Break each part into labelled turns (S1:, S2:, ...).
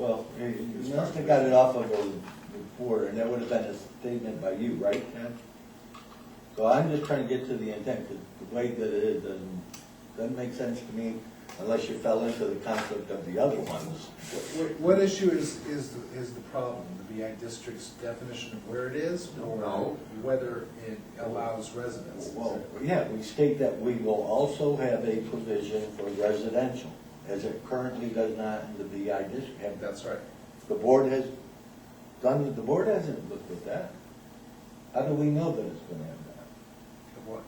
S1: You must have got it off of a report, and that would have been a statement by you, right, Ken? So I'm just trying to get to the intent, 'cause the way that it is doesn't, doesn't make sense to me unless you fell into the concept of the other ones.
S2: What- What issue is, is, is the problem? The BI district's definition of where it is? or
S1: No.
S2: Whether it allows residents?
S1: Well, yeah, we state that we will also have a provision for residential, as it currently does not in the BI district. Have-
S2: That's right.
S1: The board has done, the board hasn't looked at that. How do we know that it's gonna have that?
S2: What?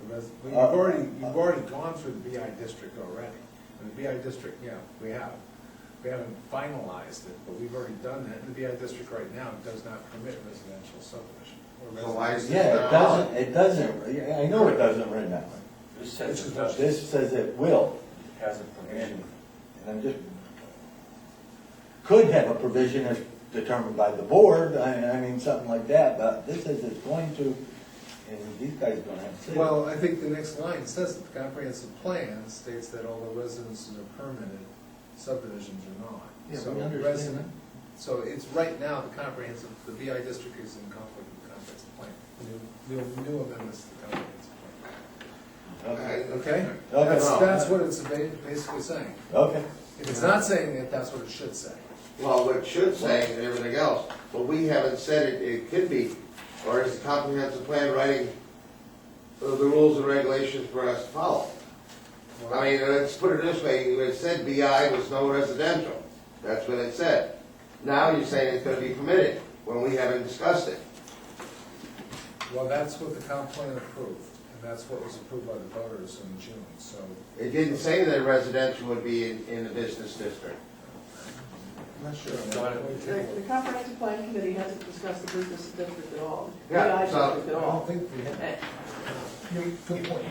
S2: The res- well,
S1: Uh,
S2: You've already,
S1: uh,
S2: you've already gone through the BI district already. And the BI district, yeah, we have. We haven't finalized it, but we've already done that. And the BI district right now does not permit residential subdivision. or
S3: So why is
S2: residential-
S1: Yeah, it doesn't, it doesn't, yeah, I know it doesn't right now.
S4: This
S2: This
S4: says
S2: is
S4: it does,
S1: This says it will,
S4: has a
S1: and,
S4: provision.
S1: and I'm just, could have a provision as determined by the board, I, I mean, something like that, but this is, it's going to, and these guys don't have to say. it.
S2: Well, I think the next line says that the comprehensive plan states that although residences are permitted, subdivisions are not.
S1: Yeah,
S2: So
S1: we understand
S2: resident-
S1: that.
S2: So it's, right now, the comprehensive, the BI district is in conflict with the comprehensive plan. New, new- new amendments to the comprehensive plan.
S1: Okay,
S2: Okay?
S1: Okay.
S2: That's, that's what it's ba- basically saying.
S1: okay,
S2: If it's not saying that, that's what it should say.
S3: Well, what it should say and everything else, but we haven't said it, it could be, or is the comprehensive plan writing the the rules and regulations for us to follow? I mean, let's put it this way, it said BI was no residential, that's what it said. Now you're saying it's gonna be permitted, when we haven't discussed it.
S2: Well, that's what the comp plan approved, and that's what was approved by the voters in June, so.
S3: It didn't say that residential would be in, in the business district.
S2: I'm not sure.
S4: Got it.
S5: The the comprehensive plan committee hasn't discussed the business district at all. the
S3: Yeah,
S5: BI
S3: so-
S2: I
S5: district at
S2: don't
S5: all.
S2: think we have.
S5: And-
S2: Good point.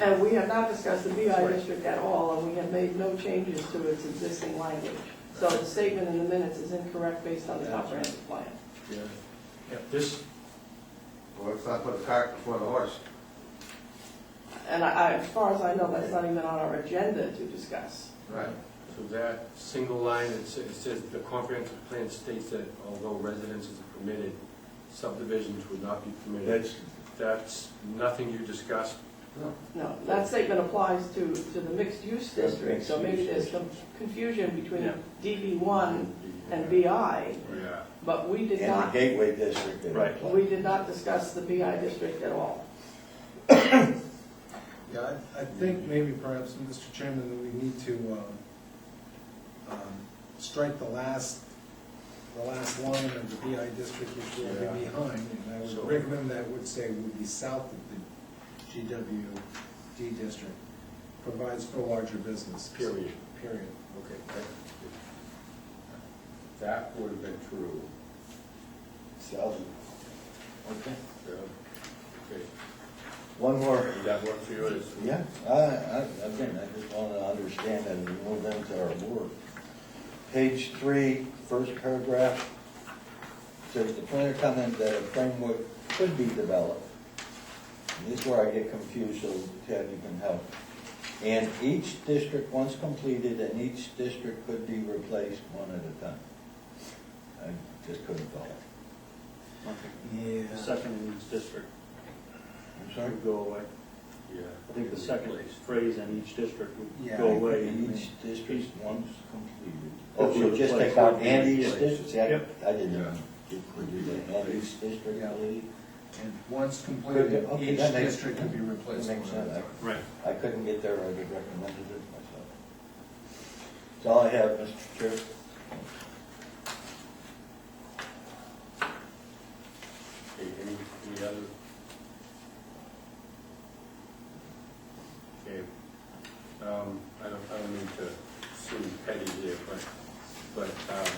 S5: And we have not discussed the BI district at all, and we have made no changes to its existing language. So the statement in the minutes is incorrect based on the comprehensive plan.
S4: This,
S3: Well, let's not put the cart before the horse.
S5: And I, I- as far as I know, that's not even on our agenda to discuss.
S3: Right.
S4: so that single line, it sa- it says, the comprehensive plan states that although residences are permitted, subdivisions would not be permitted.
S1: that's,
S4: That's nothing you discussed.
S5: No, that statement applies to, to the mixed-use district, so maybe there's some confusion between
S4: Yeah.
S5: DB one and BI,
S4: Yeah.
S5: but we did
S1: in the
S5: not,
S1: gateway district. they
S4: Right.
S1: apply.
S5: we did not discuss the BI district at all.
S2: Yeah, I, I think maybe perhaps, Mr. Chairman, that we need to, um, um, strike the last, the last line of the BI district, which we're already
S4: Yeah.
S2: behind, and I
S4: So-
S2: would recommend that would say would be south of the GWD district, provides for larger business.
S4: Period.
S2: Period.
S4: Okay. that- That would have been true.
S1: So, okay,
S4: Yeah. Okay.
S1: one more.
S4: You got one for yours?
S1: Yeah, I, I, again, I just want to understand that as we move into our work. Page three, first paragraph, says the planner comment that a framework could be developed. And This is where I get confused, so Ted, you can help. And each district, once completed, and each district could be replaced one at a time. I just couldn't follow.
S2: Yeah.
S6: The second in each district
S1: I'm sorry?
S6: would go away.
S4: Yeah.
S6: I think the second phrase in each district
S2: Yeah, I
S6: would go away.
S1: Each district once completed.
S6: Oh,
S1: Oh, so
S6: so
S1: just
S6: place
S1: take out
S6: would be
S1: and each
S6: place.
S1: district, see, I
S6: Yep.
S1: I didn't
S4: Yeah.
S1: do that, and each district,
S2: Yeah.
S1: please.
S2: And once completed,
S1: Okay,
S2: each
S1: that makes-
S2: district could be replaced.
S1: that makes
S2: one at a
S1: sense.
S2: time.
S6: Right.
S1: I couldn't get there, I would recommend it myself. That's all I have, Mr. Chair.
S4: Okay, any, any other? Okay, um, I don't, I don't mean to seem petty here, but, but, um,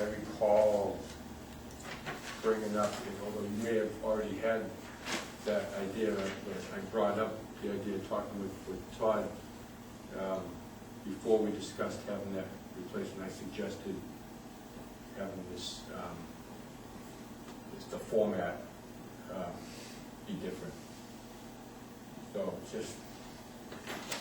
S4: I recall bringing up, although you may have already had that idea, that that I brought up the idea talking with, with Todd, um, before we discussed having that replacement, I suggested having this, um, is the format um, be different. So just